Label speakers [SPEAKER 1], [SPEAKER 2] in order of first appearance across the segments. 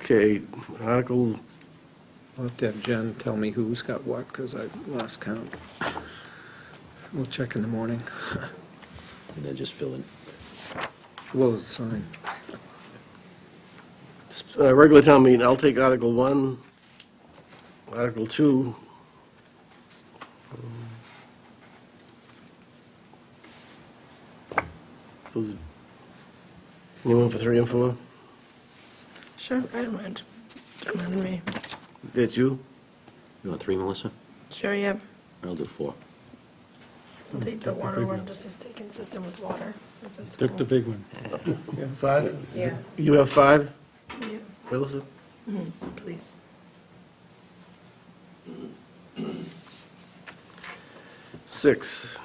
[SPEAKER 1] Okay, Article,
[SPEAKER 2] I'll have to have Jen tell me who's got what, because I lost count. We'll check in the morning.
[SPEAKER 3] and then just fill in.
[SPEAKER 2] Blow the sign.
[SPEAKER 1] uh, regular town meeting, I'll take Article 1, Article 2. Who's- Anyone for 3 and 4?
[SPEAKER 4] Sure, I don't mind. Don't mind me.
[SPEAKER 1] That's you?
[SPEAKER 3] You want three, Melissa?
[SPEAKER 4] Sure, yeah.
[SPEAKER 3] I'll do four.
[SPEAKER 4] I'll take the
[SPEAKER 5] Mm-hmm. take the
[SPEAKER 4] water
[SPEAKER 5] big
[SPEAKER 4] one
[SPEAKER 5] one.
[SPEAKER 4] just to stay consistent with water. if that's
[SPEAKER 5] Took the
[SPEAKER 4] cool.
[SPEAKER 5] big one.
[SPEAKER 1] Five?
[SPEAKER 4] Yeah,
[SPEAKER 1] You have five,
[SPEAKER 4] yeah,
[SPEAKER 1] Melissa?
[SPEAKER 4] Mm-hmm. please.
[SPEAKER 1] Six,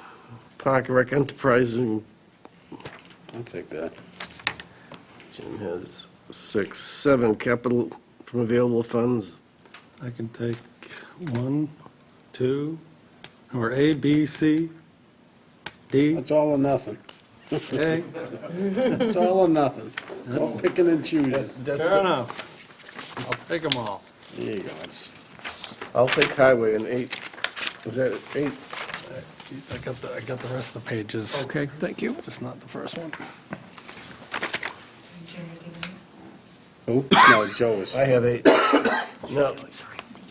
[SPEAKER 1] Park and Rec Enterprising. I'll take that. Jim has six, seven, capital from available funds.
[SPEAKER 5] I can take one, two, or A, B, C, D,
[SPEAKER 6] It's all or nothing.
[SPEAKER 5] A.
[SPEAKER 6] It's all or nothing. No picking and choosing.
[SPEAKER 1] That's,
[SPEAKER 5] Fair enough. I'll take them all.
[SPEAKER 6] There you go. It's
[SPEAKER 1] I'll take highway and eight, is that eight?
[SPEAKER 5] I got the, I got the rest of the pages,
[SPEAKER 2] Okay, thank you.
[SPEAKER 5] just not the first one.
[SPEAKER 6] Who? No, Joe is.
[SPEAKER 1] I have eight. Now,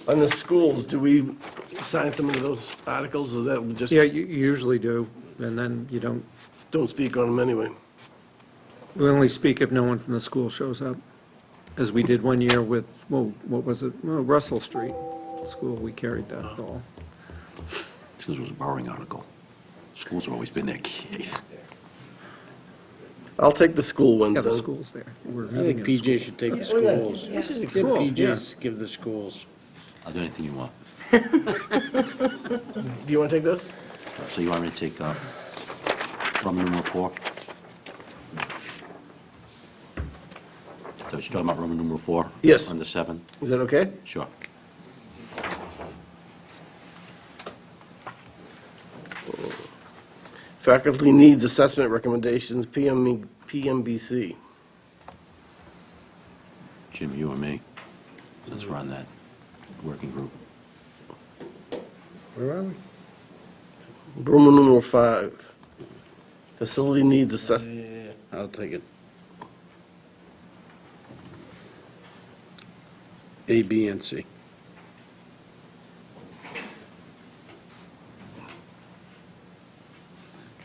[SPEAKER 1] on the schools, do we sign some of those articles, or that, we just,
[SPEAKER 2] Yeah, you you usually do, and then you don't,
[SPEAKER 1] don't speak on them anyway?
[SPEAKER 2] we only speak if no one from the school shows up, as we did one year with, well, what was it, Well, Russell Street School, we carried
[SPEAKER 3] Uh-huh.
[SPEAKER 2] that ball.
[SPEAKER 3] It's because it was a borrowing article. Schools have always been there, Keith.
[SPEAKER 1] I'll take the school ones.
[SPEAKER 2] Yeah, the
[SPEAKER 1] then.
[SPEAKER 2] school's there. We're
[SPEAKER 6] I think
[SPEAKER 2] having a school.
[SPEAKER 6] PJ should take the schools. Give PJs, give the schools.
[SPEAKER 3] I'll do anything you want.
[SPEAKER 1] Do you want to take those?
[SPEAKER 3] So you want me to take, uh, Roman numeral four? So you're talking about Roman numeral four?
[SPEAKER 1] Yes.
[SPEAKER 3] On the seven?
[SPEAKER 1] Is that okay?
[SPEAKER 3] Sure.
[SPEAKER 1] Faculty needs assessment recommendations, E, PM, PMBC.
[SPEAKER 3] Jim, you and me, since we're on that working group.
[SPEAKER 6] Where are we?
[SPEAKER 1] Roman numeral five, facility needs assessment.
[SPEAKER 6] I'll take it. A, B, and C.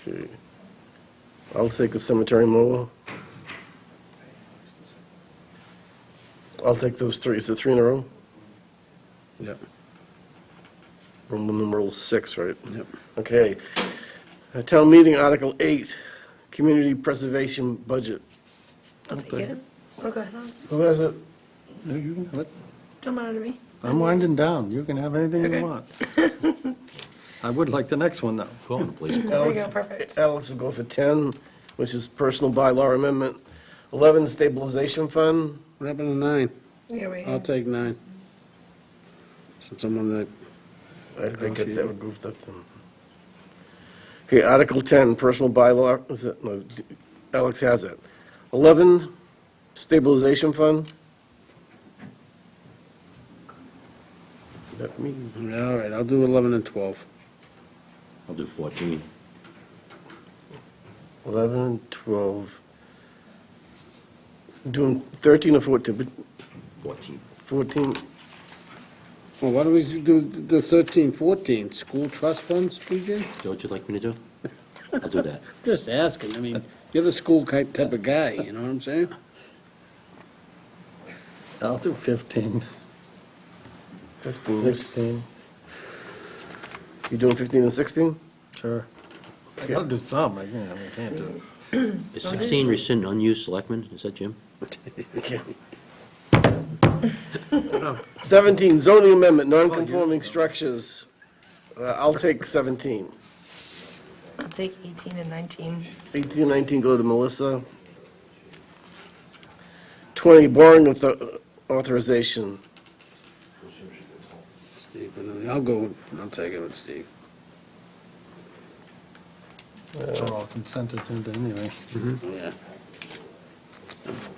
[SPEAKER 1] Okay. I'll take the cemetery mower. I'll take those three, is it three in a row?
[SPEAKER 6] Yep,
[SPEAKER 1] Roman numeral six, right?
[SPEAKER 6] yep.
[SPEAKER 1] Okay. Uh, Town meeting, Article eight, community preservation budget.
[SPEAKER 4] I'll take it. Okay, no, it's-
[SPEAKER 1] Who has it?
[SPEAKER 5] No, you can have it.
[SPEAKER 4] don't matter to me.
[SPEAKER 5] I'm winding down. You can have anything
[SPEAKER 4] Okay.
[SPEAKER 5] you want. I would like the next one, though.
[SPEAKER 3] Go on, please.
[SPEAKER 4] There we
[SPEAKER 1] Alex-
[SPEAKER 4] go, perfect.
[SPEAKER 1] Alex will go for 10, which is personal bylaw amendment. 11, stabilization fund.
[SPEAKER 6] What happened to nine?
[SPEAKER 4] Yeah, we,
[SPEAKER 6] I'll take nine. Since I'm on the,
[SPEAKER 1] I think that that goofed up then. Okay, Article 10, personal bylaw, is it, no, Alex has it. 11, stabilization fund. Let me,
[SPEAKER 6] all right, I'll do 11 and 12.
[SPEAKER 3] I'll do fourteen.
[SPEAKER 1] 11 and 12. Doing 13 or 14, but
[SPEAKER 3] Fourteen.
[SPEAKER 1] 14,
[SPEAKER 6] Well, why don't we do the 13, 14, school trust funds, PJ?
[SPEAKER 3] Is that what you'd like me to do? I'll do that.
[SPEAKER 6] Just asking, I mean, you're the school ki- type of guy, you know what I'm saying?
[SPEAKER 5] I'll do 15.
[SPEAKER 1] 15. 16. You doing 15 and 16?
[SPEAKER 5] Sure. I gotta do some, I can't, I can't do.
[SPEAKER 3] Is sixteen rescind unused selectmen? Is that Jim?
[SPEAKER 1] 17, zoning amendment, non-conforming structures. Uh, I'll take 17.
[SPEAKER 4] I'll take 18 and 19.
[SPEAKER 1] 18 and 19 go to Melissa. 20, borrowing author- uh, authorization.
[SPEAKER 6] Steve, and I'll go, I'll take it with Steve.
[SPEAKER 5] They're all consented to anyway.
[SPEAKER 6] Yeah.